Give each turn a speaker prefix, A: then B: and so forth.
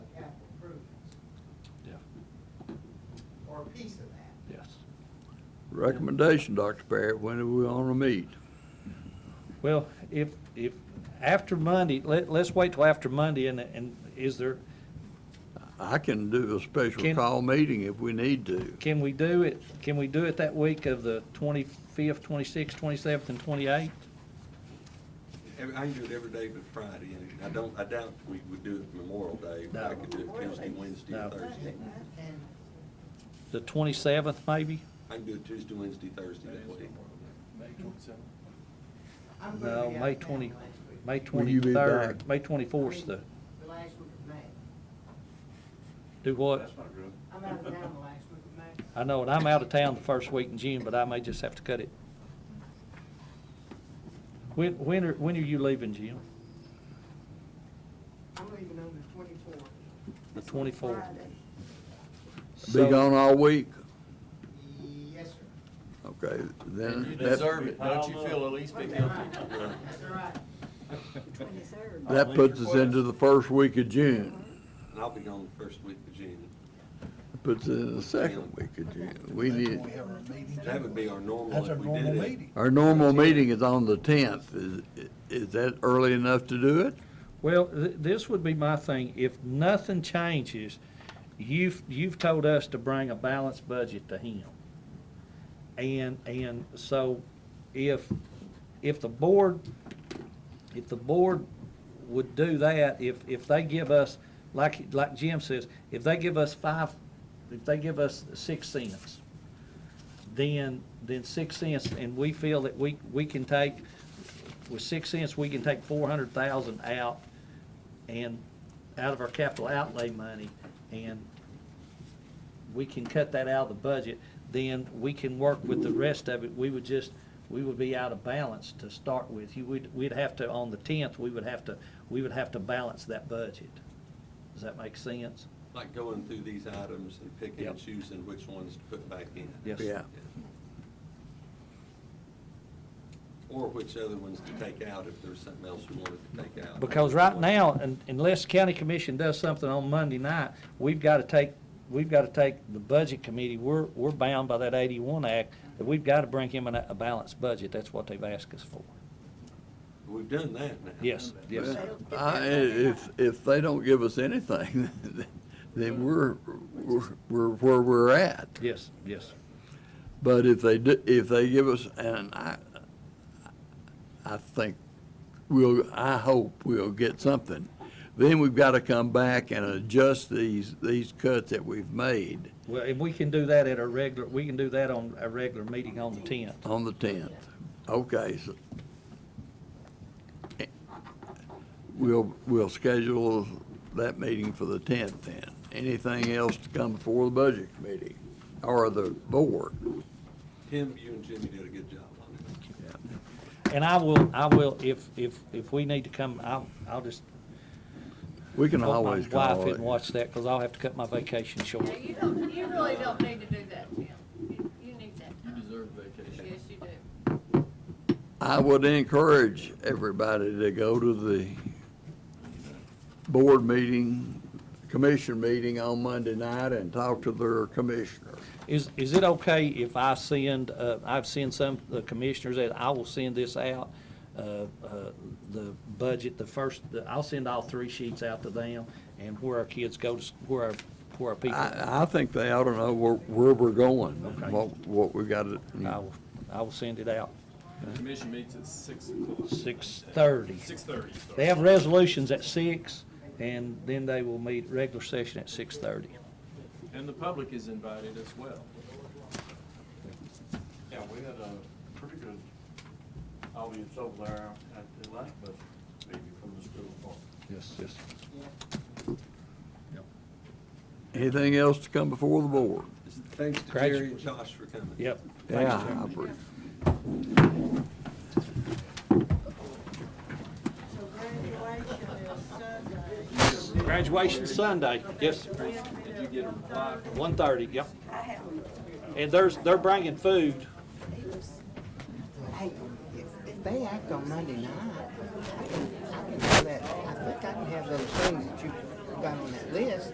A: her piece of that.
B: Yes.
C: Recommendation, Dr. Barrett, when do we want to meet?
B: Well, if, if, after Monday, let, let's wait till after Monday and, and is there,
C: I can do a special
B: Can-
C: call meeting if we need to.
B: can we do it, can we do it that week of the twenty-fifth, twenty-sixth, twenty-seventh, and twenty-eighth?
D: Every- I can do it every day but Friday, and I don't, I doubt we would do it Memorial Day, but I
B: No.
D: could do it Tuesday, Wednesday,
B: No.
D: and Thursday.
A: And
B: The twenty-seventh, maybe?
D: I can do it Tuesday, Wednesday, Thursday, that week.
A: I'm gonna
B: No,
A: be out
B: May
A: of town
B: twenty,
A: next week.
B: May
C: Will you be
B: twenty-third,
C: back?
B: May twenty-fourth, the,
A: The last week of May.
B: do what?
A: I'm out of town the last week of May.
B: I know, and I'm out of town the first week in June, but I may just have to cut it. When, when are, when are you leaving, Jim?
A: I'm leaving on the twenty-fourth.
B: The twenty-fourth?
C: Be gone all week?
A: Yes, sir.
C: Okay,
E: And you
C: then
E: deserve
C: that,
E: it, don't you feel at least bit guilty?
A: That's all right.
F: Twenty-third.
C: that puts us into the first week of June.
D: And I'll be gone the first week of June.
C: Puts it in the second week of June. We need,
D: That would be our normal
G: That's our
D: if we
G: normal
D: did it.
G: meeting.
C: our normal meeting is on the tenth. Is, is that early enough to do it?
B: Well, th- this would be my thing, if nothing changes, you've, you've told us to bring a balanced budget to him. And, and so if, if the board, if the board would do that, if, if they give us, like, like Jim says, if they give us five, if they give us six cents, then, then six cents, and we feel that we, we can take, with six cents, we can take four hundred thousand out and, out of our capital outlay money, and we can cut that out of the budget, then we can work with the rest of it. We would just, we would be out of balance to start with. You, would we'd have to, on the tenth, we would have to, we would have to balance that budget. Does that make sense?
D: Like going through these items and picking
B: Yep.
D: and choosing which ones to put back in.
B: Yes.
C: Yeah.
D: Or which other ones to take out if there's something else we wanted to take out.
B: Because right now, un- unless county commission does something on Monday night, we've got to take, we've got to take the budget committee, we're, we're bound by that eighty-one act, that we've got to bring him in a a balanced budget. That's what they've asked us for.
D: We've done that now.
B: Yes, yes.
C: I, if, if they don't give us anything, then we're, we're, we're where we're at.
B: Yes, yes.
C: But if they do, if they give us, and I, I think we'll, I hope we'll get something. Then we've got to come back and adjust these, these cuts that we've made
B: Well, if we can do that at a regular, we can do that on a regular meeting on the tenth.
C: on the tenth. Okay, so. eh, We'll, we'll schedule that meeting for the tenth then. Anything else to come before the budget committee or the board?
D: Tim, you and Jimmy did a good job on it.
B: And I will, I will, if, if, if we need to come, I'll, I'll just,
C: We can
B: hope my
C: always
B: wife
C: call
B: and
C: it.
B: watch that, because I'll have to cut my vacation short.
F: No, you don't, you really don't need to do that, Tim. You- You need that
E: You
F: time.
E: deserve vacation.
F: Yes, you do.
C: I would encourage everybody to go to the board meeting, commission meeting on Monday night and talk to their commissioner.
B: Is, is it okay if I send, uh, I've sent some, the commissioners, that I will send this out, uh, uh, the budget, the first, the- I'll send all three sheets out to them, and where our kids go to, s- where our, where our people.
C: I, I think they ought to know where, where we're going,
B: Okay.
C: what, what we got to,
B: I will, I will send it out,
H: The commission meets at six o'clock,
B: six-thirty.
H: six thirty.
B: They have resolutions at six, and then they will meet regular session at six-thirty.
H: And the public is invited as well.
I: Yeah, we had a pretty good audience over there at the last budget meeting from the school board.
B: Yes, yes.
C: anything else to come before the board?
D: Thanks to
B: Gradu-
D: Jerry and Josh for coming.
B: Yep.
C: Yeah, I agree.
A: So graduation is Sunday.
B: Graduation Sunday, yes.
H: Did you get a reply?
B: One-thirty, yep. And there's, they're bringing food.
A: Hey, if, if they act on Monday night, I can, I can have that, I think I can have those things that you got on that list